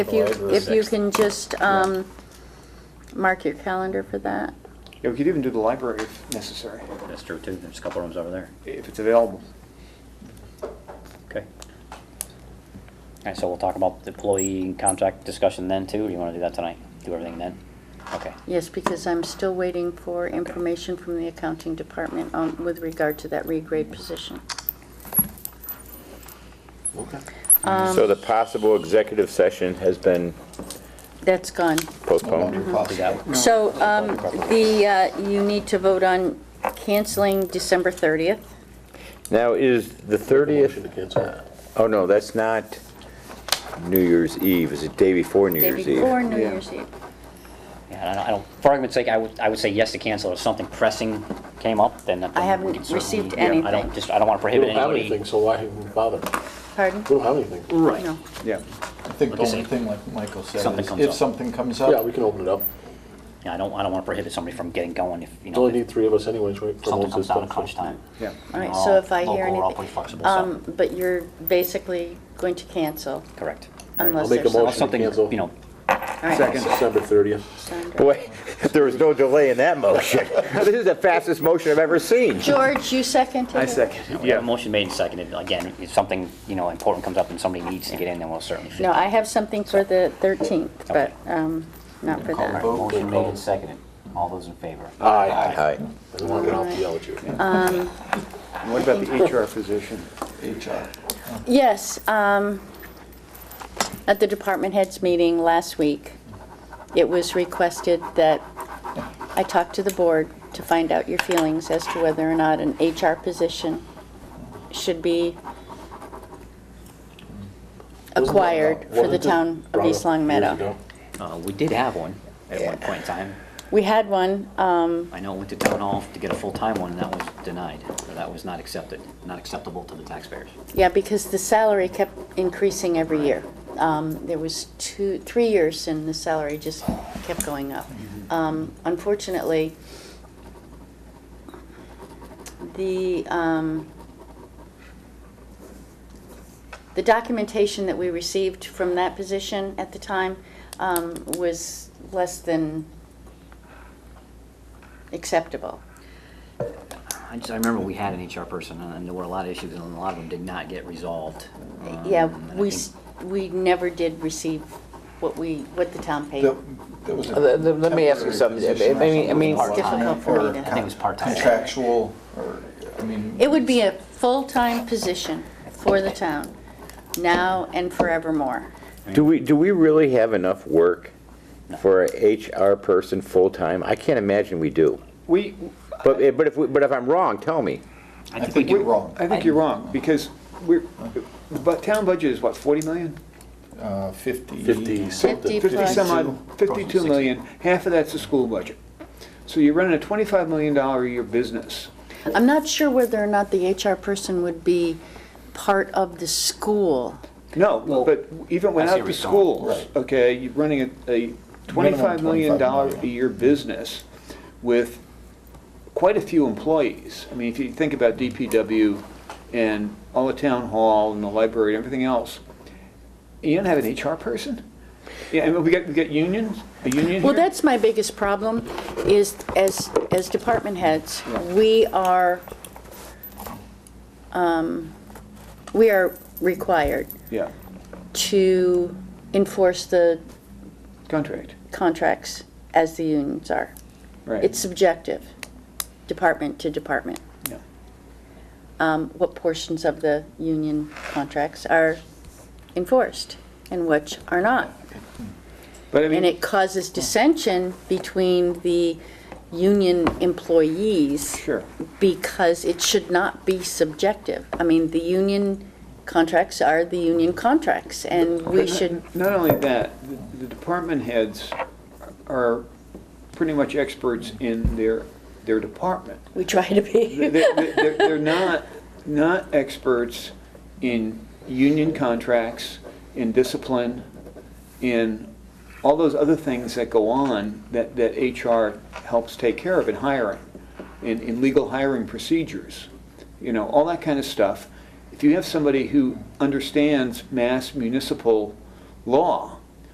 If you, July the if you sixth. can just um, mark your calendar for that. Yeah, we could even do the library if necessary, That's true too, there's a couple rooms over there. if it's available. Okay. All right, so we'll talk about the employee contract discussion then too, or you want to do that tonight? Do everything then? Okay. Yes, because I'm still waiting for information from the accounting department on- with regard to that regrade position. Um, So the possible executive session has been That's gone. postponed. Do that. So um, the, uh, you need to vote on canceling December 30th. Now, is the 30th, oh no, that's not New Year's Eve, is it day before New Day Year's Eve? before New Yeah. Year's Eve. Yeah, I don't- I don't, for argument's sake, I would, I would say yes to cancel. If something pressing came up, then. then I haven't we can certainly- received yeah, I anything. don't, just, I don't want to We prohibit don't have anybody. anything, so why even bother? We Pardon? don't have anything. Right. No. Yeah. I think the Like I only said, thing, like Michael said, something is comes up. if something comes up. Yeah, we can open it up. Yeah, I don't, I don't want to prohibit somebody from getting going if, you We only know, need if three of us anyways, right? for something comes most of this out at stuff, so- crunch time. Yeah. All right, We're so all if I hear local, we're all pretty anything. flexible, so- Um, But you're basically going to cancel Correct. unless I'll make a there's. motion. Unless something, cancel. you know, All right. Second. December 30th. Sandra. Boy, there was no delay in that motion. This is the fastest motion I've ever seen. George, you seconded? I it? second, we have a yeah. motion made and seconded. Again, if something, you know, important comes up and somebody needs to get in, then we'll certainly. fit No, I have something for the 13th, but um, not for All right, that. motion made and seconded. All those in favor? Aye. Hi. I don't want to have to yell at you. And What about the HR position? HR. Yes, um, at the department heads meeting last week, it was requested that I talk to the board to find out your feelings as to whether or not an HR position should be acquired for the town of East Long Meadow. Uh, We did have one at one point in time. We had one, um, I know it went to town hall to get a full-time one, and that was denied, or that was not accepted, not acceptable to the taxpayers. Yeah, because the salary kept increasing every year. Um, There was two, three years and the salary just kept going up. Um, Unfortunately, the, um, the documentation that we received from that position at the time um, was less than acceptable. I just, I remember we had an HR person, and and there were a lot of issues, and a lot of them did not get resolved. Um, Yeah, and I we, think- s- we never did receive what we, what the town paid. That- that was a Let- Uh, let- let me ask you temporary something. I position or mean- I something. mean- It's difficult for me to- I think it was part-time. Contractual, or, I mean. It would be a full-time position for the town, now and forevermore. Do we, do we really have enough work for a HR person full-time? I can't imagine we do. We, But, but if, we- but if I'm wrong, tell me. I think you're wrong. I think you're wrong, because we're, but town budget is what, 40 million? Uh, Fifty. 50 something. 50 50 some Goes odd, to 52 million, half of that's the school budget. So you're running a $25 million a year business. I'm not sure whether or not the HR person would be part of the school. No, Well, but even I see without where the he's going. schools, okay, you're running a- a $25 million $25 a year business with quite a few employees. I mean, if you think about DPW and all the town hall and the library and everything else, you don't have an HR person? Yeah, and we got, we got unions, a union Well, here? that's my biggest problem, is as, as department heads, we are, um, we are required Yeah, to enforce the contract, contracts as the unions are. right. It's subjective, department to department. Yeah. um, what portions of the union contracts are enforced and which are not. But I And mean, it causes dissension between the union employees. Sure. Because it should not be subjective. I mean, the union contracts are the union contracts, and we should, not only that, the- the department heads are pretty much experts in their, their department. we try to They- be. they- They're they're not, not experts in union contracts, in discipline, in all those other things that go on that, that HR helps take care of in hiring, in, in legal hiring procedures, you know, all that kind of stuff. If you have somebody who understands mass municipal law